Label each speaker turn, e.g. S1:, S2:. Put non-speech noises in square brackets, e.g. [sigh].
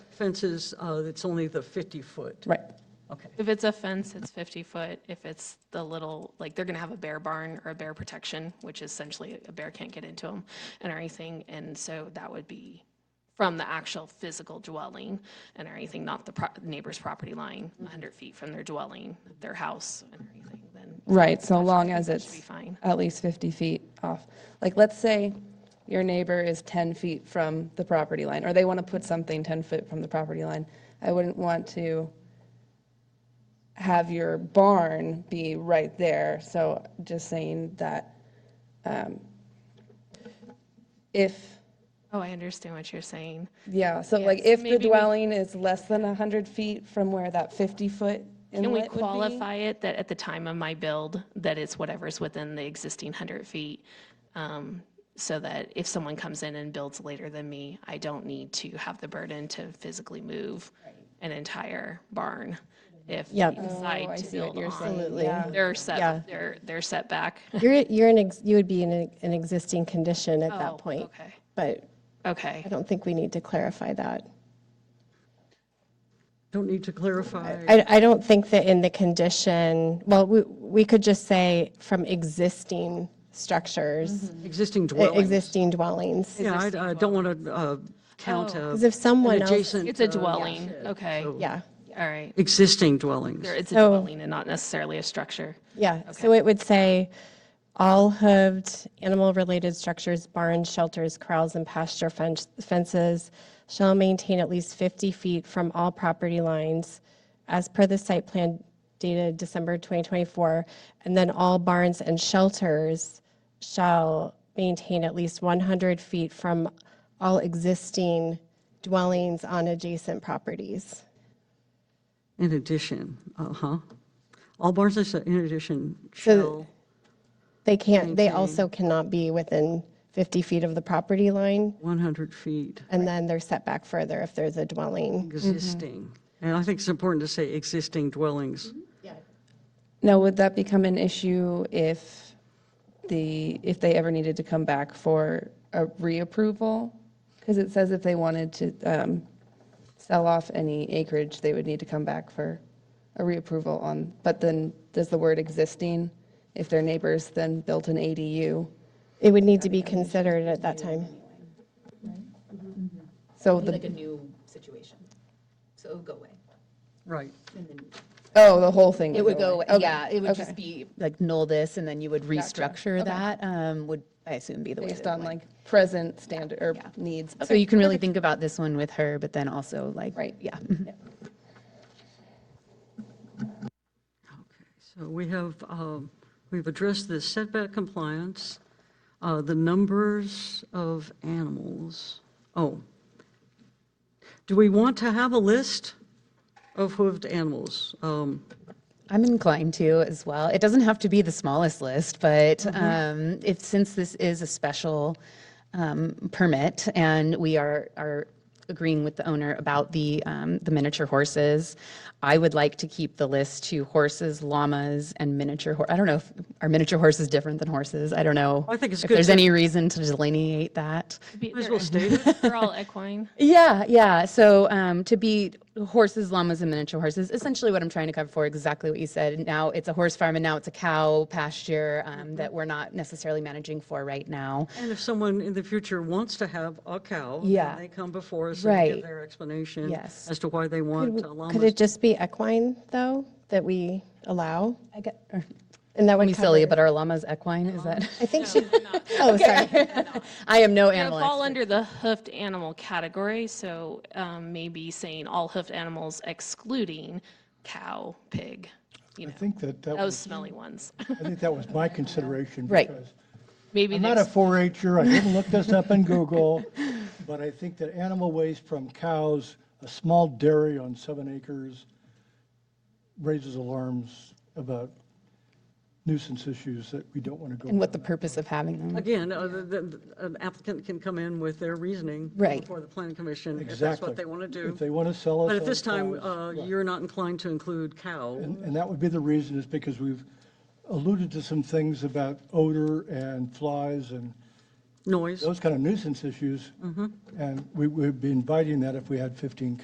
S1: fences, uh, it's only the 50-foot.
S2: Right.
S1: Okay,
S3: If it's a fence, it's 50 foot. If it's the little, like, they're going to have a bear barn or a bear protection, which is essentially a bear can't get into them and or anything. And so that would be from the actual physical dwelling and or anything, not the pro- neighbor's property line, 100 feet from their dwelling, their house and or anything, then
S2: Right, so long as
S3: should be
S2: it's
S3: fine.
S2: at least 50 feet off. Like, let's say your neighbor is 10 feet from the property line, or they want to put something 10 foot from the property line. I wouldn't want to have your barn be right there, so just saying that um, if,
S3: Oh, I understand what you're saying.
S2: yeah, so like
S3: Yes,
S2: if
S3: maybe
S2: the
S3: we-
S2: dwelling is less than 100 feet from where that 50-foot inlet
S3: Can
S2: would
S3: we
S2: be.
S3: qualify it that at the time of my build, that it's whatever's within the existing 100 feet? um, So that if someone comes in and builds later than me, I don't need to have the burden to physically move an entire barn if they
S4: Yep.
S2: Oh, I
S3: decide to
S2: see what
S3: build
S2: you're
S3: on
S2: saying.
S4: Absolutely.
S2: Yeah.
S3: their
S4: Yeah.
S3: set, their, their setback.
S4: You're, you're an, ex- you would be in a- an existing condition at
S3: Oh,
S4: that point.
S3: Okay,
S4: But
S3: okay.
S4: I don't think we need to clarify that.
S1: don't need to clarify.
S4: I, I don't think that in the condition, well, we, we could just say from existing structures,
S3: Mm-hmm.
S1: Existing
S4: e-
S1: dwelling.
S4: existing dwellings.
S1: Yeah, I I don't want to count a-
S4: Oh. Because if someone
S1: an
S4: else,
S1: adjacent.
S3: It's a
S1: uh,
S3: dwelling, okay,
S4: yeah,
S3: all right.
S1: Existing dwellings.
S3: There- It's a
S4: So-
S3: dwelling and not necessarily a structure.
S4: yeah. So it would say, all hooved animal-related structures, barns, shelters, corrals, and pasture fence- fences shall maintain at least 50 feet from all property lines as per the site plan dated December 2024. And then all barns and shelters shall maintain at least 100 feet from all existing dwellings on adjacent properties.
S1: In addition, uh-huh. All barns and sh- in addition shall,
S4: They can't, they also cannot be within 50 feet of the property line,
S1: 100 feet
S4: and then they're set back further if there's a dwelling.
S1: existing. And I think it's important to say existing dwellings.
S2: Now, would that become an issue if the, if they ever needed to come back for a reapproval? Because it says if they wanted to um, sell off any acreage, they would need to come back for a reapproval on, but then does the word existing, if their neighbors then built an ADU?
S4: It would need to be considered at that time.
S2: So
S5: be like
S2: the,
S5: a new situation. So it would go away.
S1: Right.
S5: And then
S2: oh, the whole thing
S5: It would go, away.
S2: Okay.
S5: yeah, it would
S2: Okay.
S5: just be like null this and then you would restructure that, um, would, I assume, be the way. that
S2: Based
S5: it
S2: on
S5: went.
S2: like present standard or needs.
S5: So you can really think about this one with her, but then also like.
S2: Right.
S5: Yeah.
S1: So we have, um, we've addressed the setback compliance, uh, the numbers of animals. Oh. Do we want to have a list of hooved animals? Um,
S5: I'm inclined to as well. It doesn't have to be the smallest list, but
S1: Mm-hmm.
S5: um, if, since this is a special um, permit and we are, are agreeing with the owner about the, um, the miniature horses, I would like to keep the list to horses, llamas, and miniature, hor- I don't know if, are miniature horses different than horses? I don't know.
S1: I think it's
S5: If
S1: good
S5: there's
S1: to-
S5: any reason to delineate that.
S3: Be-
S1: Might as
S3: they're-
S1: well
S2: [laughs]
S1: state it.
S3: They're all equine.
S5: Yeah, yeah. So um, to be horses, llamas, and miniature horses, essentially what I'm trying to cover for, exactly what you said. Now it's a horse farm and now it's a cow pasture um, that we're not necessarily managing for right now.
S1: And if someone in the future wants to have a cow,
S5: Yeah.
S1: then they come before us and give
S5: Right.
S1: their explanation
S5: Yes.
S1: as to why they want uh,
S4: Could
S1: llamas.
S4: it just be equine, though, that we allow?
S5: I get, or,
S4: And that
S5: i
S4: would
S5: be silly,
S4: cover-
S5: but are llamas equine? Is that?
S4: I think she, oh, sorry.
S5: [laughs] I am no
S3: They
S5: animal
S3: fall
S5: expert.
S3: under the hoofed animal category, so um, maybe saying all hoofed animals excluding cow, pig, you
S6: I
S3: know,
S6: think that, that
S3: those
S6: was,
S3: smelly ones. [laughs]
S6: I think that was my
S5: [laughs]
S6: consideration.
S5: Right.
S6: because
S3: Maybe
S6: I'm not a
S3: there's,
S6: 4-H'er, I didn't look this
S5: [laughs]
S6: up in Google, but I think that animal waste from cows, a small dairy on seven acres raises alarms about nuisance issues that we don't want to go.
S5: And what the
S6: down.
S5: purpose of having them.
S1: Again, uh, the- the- an applicant can come in with their reasoning.
S5: Right.
S1: Before the planning commission, if that's
S6: Exactly.
S1: what they want to do.
S6: If they want to sell us.
S1: But at
S6: our
S1: this time,
S6: cows,
S1: uh,
S6: right.
S1: you're not inclined to include cow.
S6: And and that would be the reason is because we've alluded to some things about odor and flies and
S1: Noise.
S6: those kind of nuisance issues. And we would be inviting that if we had 15